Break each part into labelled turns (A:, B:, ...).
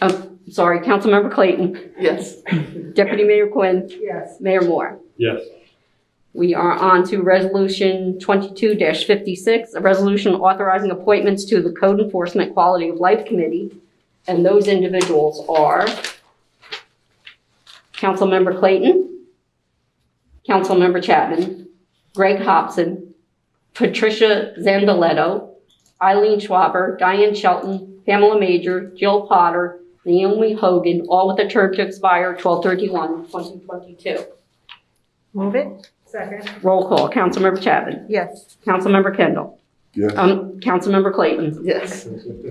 A: Oh, sorry, Councilmember Clayton,
B: Yes.
A: Deputy Mayor Quinn,
B: Yes.
A: Mayor Moore.
C: Yes.
A: We are on to Resolution 22-56, a resolution authorizing appointments to the Code Enforcement Quality of Life Committee. And those individuals are Councilmember Clayton, Councilmember Chapman, Greg Hobson, Patricia Zandaletto, Eileen Schwaber, Diane Shelton, Pamela Major, Jill Potter, Naomi Hogan, all with a term to expire 12/31/2022.
B: Move it. Second.
A: Roll call, Councilmember Chapman.
B: Yes.
A: Councilmember Kendall.
D: yes,
A: Um, Councilmember Clayton.
B: Yes.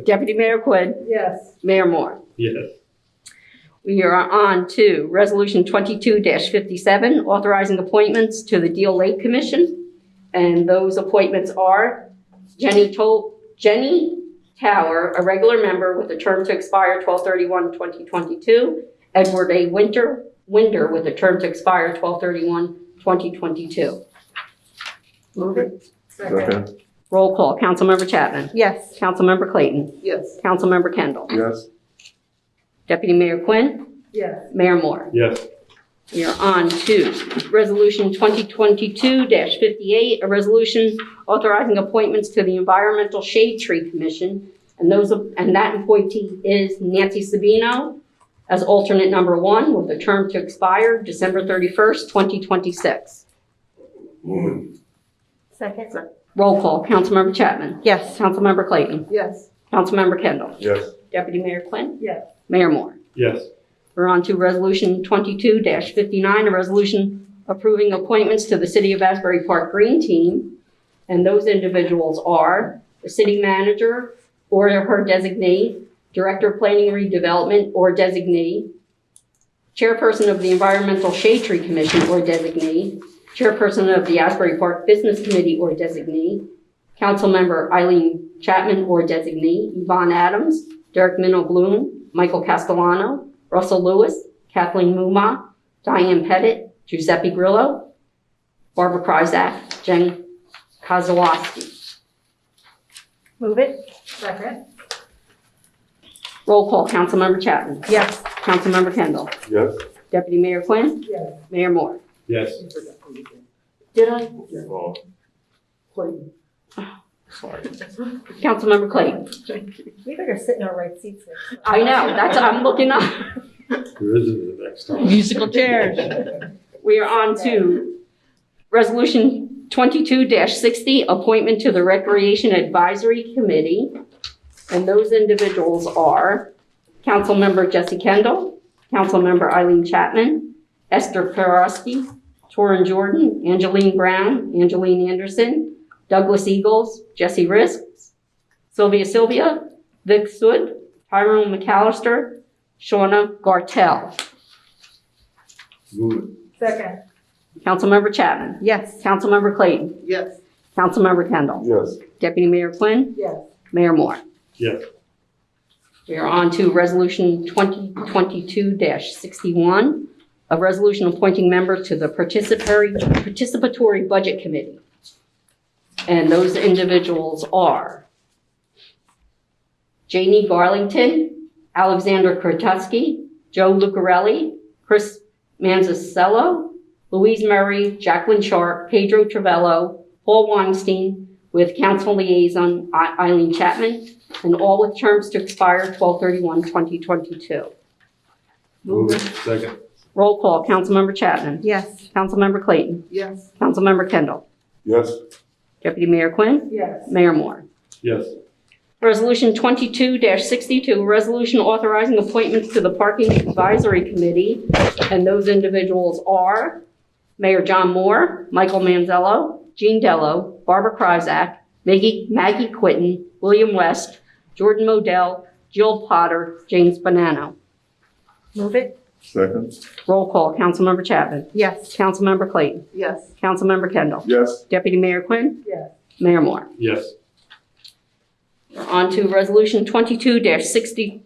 A: Deputy Mayor Quinn.
B: Yes.
A: Mayor Moore.
C: Yes.
A: We are on to Resolution 22-57, authorizing appointments to the Deal Lake Commission. And those appointments are Jenny Tol, Jenny Tower, a regular member with a term to expire 12/31/2022. Edward A. Winter, Winder, with a term to expire 12/31/2022.
B: Move it.
D: second,
A: Roll call, Councilmember Chapman.
B: Yes.
A: Councilmember Clayton.
B: Yes.
A: Councilmember Kendall.
D: yes,
A: Deputy Mayor Quinn.
B: Yes.
A: Mayor Moore.
C: Yes.
A: We are on to Resolution 2022-58, a resolution authorizing appointments to the Environmental Shade Tree Commission. And those, and that appointee is Nancy Sabino as alternate number one with a term to expire December 31st, 2026.
D: move
B: Second.
A: Roll call, Councilmember Chapman.
B: Yes.
A: Councilmember Clayton.
B: Yes.
A: Councilmember Kendall.
D: it, yes,
A: Deputy Mayor Quinn.
B: Yes.
A: Mayor Moore.
C: Yes.
A: We're on to Resolution 22-59, a resolution approving appointments to the City of Asbury Park Green Team. And those individuals are the city manager or her designee, Director of Planning and Redevelopment or designee, Chairperson of the Environmental Shade Tree Commission or designee, Chairperson of the Asbury Park Business Committee or designee, Councilmember Eileen Chapman or designee, Yvonne Adams, Derek Minow Bloom, Michael Castellano, Russell Lewis, Kathleen Mumma, Diane Pettit, Giuseppe Grillo, Barbara Kryzak, Jen Kozowski.
B: Move it. Second.
A: Roll call, Councilmember Chapman.
B: Yes.
A: Councilmember Kendall.
D: yes,
A: Deputy Mayor Quinn.
B: Yes.
A: Mayor Moore.
C: Yes.
A: Did I?
D: oh,
A: Councilmember Clayton.
B: We better sit in our right seats.
A: I know, that's, I'm looking up.
C: There isn't the next time.
E: Musical chairs.
A: We are on to Resolution 22-60, appointment to the Recreation Advisory Committee. And those individuals are Councilmember Jesse Kendall, Councilmember Eileen Chapman, Esther Perowski, Torrin Jordan, Angeline Brown, Angeline Anderson, Douglas Eagles, Jesse Risks, Sylvia Sylvia, Vic Sud, Tyrone McAllister, Shauna Gartell.
C: Move it.
B: Second.
A: Councilmember Chapman.
B: Yes.
A: Councilmember Clayton.
B: Yes.
A: Councilmember Kendall.
D: yes,
A: Deputy Mayor Quinn.
B: Yes.
A: Mayor Moore.
C: Yes.
A: We are on to Resolution 2022-61, a resolution appointing members to the participatory, participatory budget committee. And those individuals are Janie Garlington, Alexander Krotowski, Joe Lucarelli, Chris Manzasello, Louise Murray, Jacqueline Sharp, Pedro Travello, Paul Weinstein, with council liaison I- Eileen Chapman, and all with terms to expire 12/31/2022.
C: Move it. Second.
A: Roll call, Councilmember Chapman.
B: Yes.
A: Councilmember Clayton.
B: Yes.
A: Councilmember Kendall.
D: yes,
A: Deputy Mayor Quinn.
B: Yes.
A: Mayor Moore.
C: Yes.
A: Resolution 22-62, a resolution authorizing appointments to the Parking Advisory Committee. And those individuals are Mayor John Moore, Michael Manzello, Jean Dello, Barbara Kryzak, Maggie Maggie Quinton, William West, Jordan Modell, Jill Potter, James Bonanno.
B: Move it.
D: second,
A: Roll call, Councilmember Chapman.
B: Yes.
A: Councilmember Clayton.
B: Yes.
A: Councilmember Kendall.
D: yes,
A: Deputy Mayor Quinn.
B: Yes.
A: Mayor Moore.
C: Yes.
A: On to Resolution 22-63,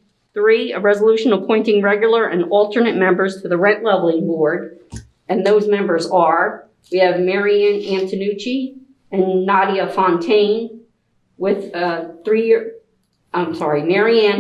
A: a resolution appointing regular and alternate members to the Rent Leveling Board. And those members are, we have Marianne Antonucci and Nadia Fontaine with uh three-year, I'm sorry, Marianne